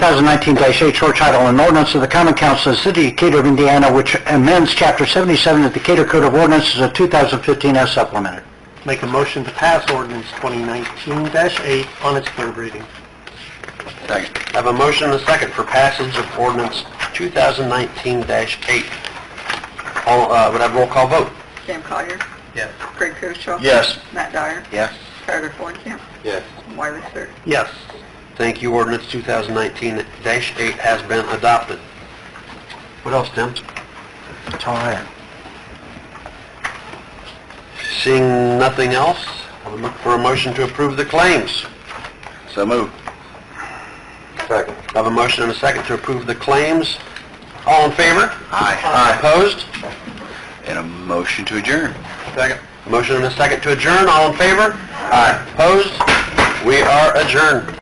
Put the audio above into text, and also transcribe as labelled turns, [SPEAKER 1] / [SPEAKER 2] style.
[SPEAKER 1] 2019-8 short title, an ordinance of the common council of the city of Decatur, of Indiana, which amends chapter 77 of the Decatur Code of Ordinances of 2015 as supplemented.
[SPEAKER 2] Make a motion to pass ordinance 2019-8 on its third reading.
[SPEAKER 1] Second.
[SPEAKER 2] I have a motion and a second for passage of ordinance 2019-8. All, uh, would have roll call vote?
[SPEAKER 3] Sam Collier.
[SPEAKER 2] Yes.
[SPEAKER 3] Craig Koshaw.
[SPEAKER 2] Yes.
[SPEAKER 3] Matt Dyer.
[SPEAKER 1] Yes.
[SPEAKER 3] Tyler Forkamp.
[SPEAKER 2] Yes.
[SPEAKER 3] Wiley Sir.
[SPEAKER 2] Yes. Thank you, ordinance 2019-8 has been adopted. What else, Tim?
[SPEAKER 1] That's all right.
[SPEAKER 2] Seeing nothing else, I'll look for a motion to approve the claims.
[SPEAKER 1] So moved.
[SPEAKER 2] Second. I have a motion and a second to approve the claims. All in favor? Aye. Opposed?
[SPEAKER 1] And a motion to adjourn.
[SPEAKER 2] Second. Motion and a second to adjourn, all in favor? Aye. Opposed? We are adjourned.